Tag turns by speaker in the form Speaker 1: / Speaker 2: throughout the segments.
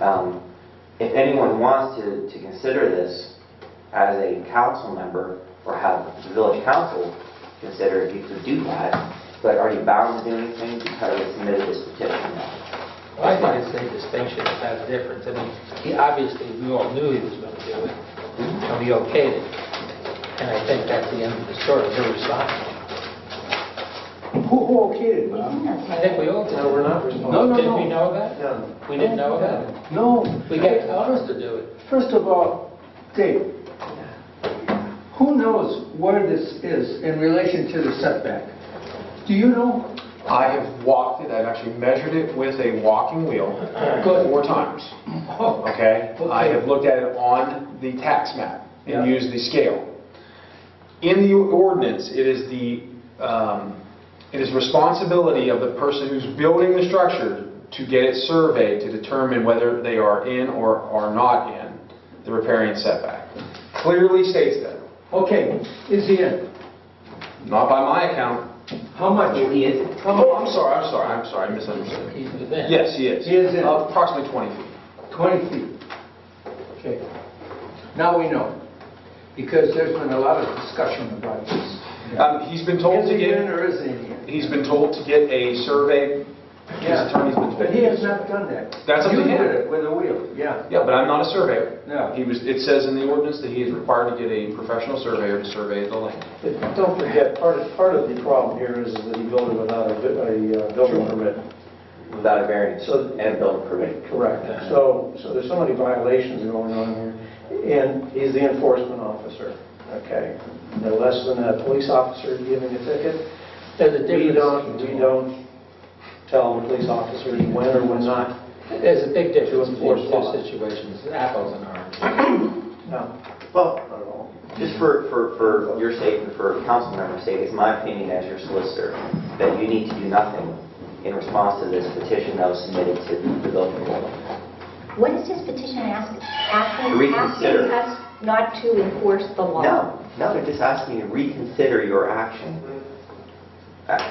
Speaker 1: Um, If anyone wants to, to consider this as a council member, or have the village council consider if you could do that, but are you bound to do anything because you submitted this petition?
Speaker 2: Well, I think it's a distinction, it's not a difference. I mean, he obviously, we all knew he was going to do it, and we okayed it. And I think that's the end of the story, they're responsible.
Speaker 3: Who, who okayed it, Bob?
Speaker 2: I think we all did.
Speaker 4: No, we're not
Speaker 3: No, no,
Speaker 2: Did we know
Speaker 3: no.
Speaker 2: that? We didn't know that?
Speaker 3: No.
Speaker 2: We got others to do it.
Speaker 3: First of all, Dave, who knows where this is in relation to the setback? Do you know?
Speaker 4: I have walked it, I've actually measured it with a walking wheel
Speaker 3: Good.
Speaker 4: four times,
Speaker 3: Oh,
Speaker 4: okay? I
Speaker 3: Okay.
Speaker 4: have looked at it on the tax map
Speaker 3: Yeah.
Speaker 4: and used the scale. In the ordinance, it is the, um, it is responsibility of the person who's building the structure to get it surveyed to determine whether they are in or are not in the riparian setback. Clearly states that,
Speaker 3: Okay, is he in?
Speaker 4: not by my account.
Speaker 3: How much?
Speaker 1: He is,
Speaker 4: Oh, I'm sorry, I'm sorry, I'm sorry, I misunderstood.
Speaker 2: He's within.
Speaker 4: Yes, he is.
Speaker 3: He is in.
Speaker 4: Approximately 20 feet.
Speaker 3: 20 feet. Okay. Now we know, because there's been a lot of discussion about this.
Speaker 4: Um, He's been told
Speaker 3: Is
Speaker 4: to
Speaker 3: he in
Speaker 4: get,
Speaker 3: or isn't he in?
Speaker 4: he's been told to get a survey, his
Speaker 3: Yeah.
Speaker 4: attorney's been
Speaker 3: But he has
Speaker 4: told.
Speaker 3: not done that.
Speaker 4: That's up to
Speaker 3: You
Speaker 4: him.
Speaker 3: did it with a wheel, yeah.
Speaker 4: Yeah, but I'm not a surveyor.
Speaker 3: No.
Speaker 4: He was, it says in the ordinance that he is required to get a professional surveyor to survey the land.
Speaker 5: But Don't forget, part of, part of the problem here is that he built it without a, bu- a uh, building permit.
Speaker 1: without a variance
Speaker 5: So-
Speaker 1: and building permit.
Speaker 5: Correct. So, so there's so many violations going on here, and he's the enforcement officer, okay? No less than a police officer giving a ticket.
Speaker 2: There's a
Speaker 5: We don't,
Speaker 2: difference.
Speaker 5: we don't tell the police officers when or when not.
Speaker 2: There's a big difference
Speaker 5: To
Speaker 2: between the
Speaker 5: enforce law.
Speaker 2: two situations, apples and oranges.
Speaker 5: No,
Speaker 1: Well,
Speaker 5: not at all.
Speaker 1: Just for, for, for your sake and for council member's sake, it's my opinion as your solicitor that you need to do nothing in response to this petition that was submitted to the building board.
Speaker 6: What is his petition asking? Asking,
Speaker 1: Reconsider.
Speaker 6: asking us not to enforce the law?
Speaker 1: No, no, they're just asking you to reconsider your action. Uh,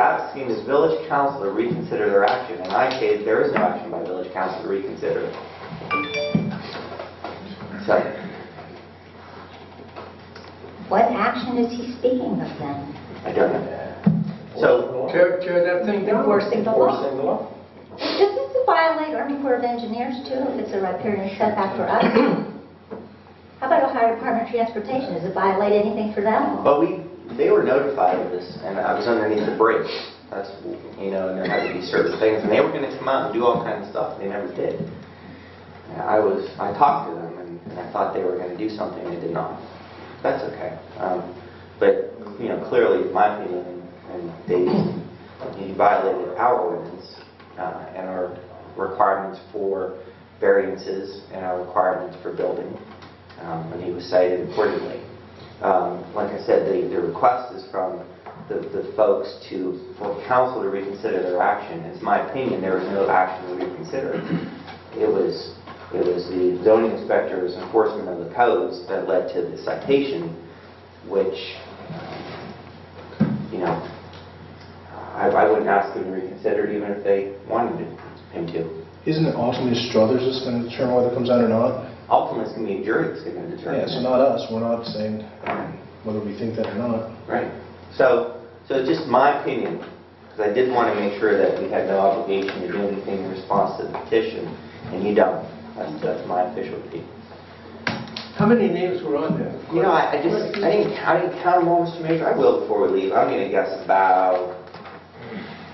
Speaker 1: Asking this village council to reconsider their action, and I say there is no action by village council to reconsider. So,
Speaker 6: What action is he speaking of then?
Speaker 1: I don't know. So,
Speaker 3: Tear, tear that thing down.
Speaker 6: Enforcing the law?
Speaker 5: Enforcing the law.
Speaker 6: Doesn't this violate Army Corps of Engineers too, if it's a riparian setback for us? How about Ohio Department of Transportation? Does it violate anything for them?
Speaker 1: but we, they were notified of this, and I was underneath the bridge. That's, you know, and there had to be certain things, and they were gonna come out and do all kinds of stuff, and they never did. And I was, I talked to them, and- and I thought they were gonna do something, and they did not. That's okay. Um, But, you know, clearly, in my opinion, and they, you violated our ordinance uh, and our requirements for variances and our requirements for building, um, and he was cited accordingly. Um, Like I said, the, the request is from the, the folks to, for council to reconsider their action. It's my opinion, there was no action to reconsider. It was, it was the zoning inspector's enforcement of the codes that led to the citation, which, um, you know, I, I wouldn't ask them to reconsider it even if they wanted him to.
Speaker 7: Isn't it ultimately Struthers that's going to determine whether it comes out or not?
Speaker 1: Ultimately, it's going to be a jury that's going to determine.
Speaker 7: Yeah, so not us, we're not saying whether we think that or not.
Speaker 1: Right. So, so just my opinion, because I did want to make sure that we had no obligation to do anything in response to the petition, and you don't. That's, that's my official opinion.
Speaker 3: How many names were on there?
Speaker 1: You know, I, I just, I didn't, I didn't count them all, Mr. Major. I will before we leave. I'm going to guess about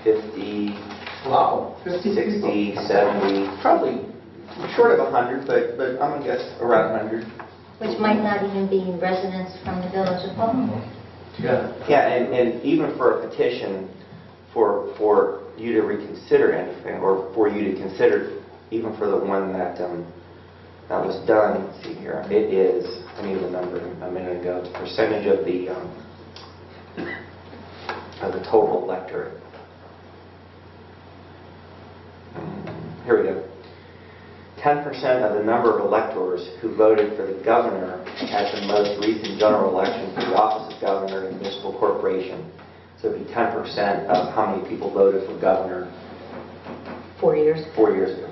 Speaker 1: 50,
Speaker 3: Wow. 50
Speaker 1: 60,
Speaker 3: people.
Speaker 1: 70, probably short of 100, but, but I'm going to guess around 100.
Speaker 6: Which might not even be residents from the village of Homewood.
Speaker 3: Yeah.
Speaker 1: Yeah, and, and even for a petition for, for you to reconsider anything, or for you to consider, even for the one that, um, that was done, let's see here, it is, I need the number a minute ago, the percentage of the, um, of the total electorate. Um, Here we go. 10% of the number of electors who voted for the governor at the most recent general election for the office of governor in a municipal corporation. So it'd be 10% of how many people voted for governor
Speaker 6: Four years.
Speaker 1: four years ago.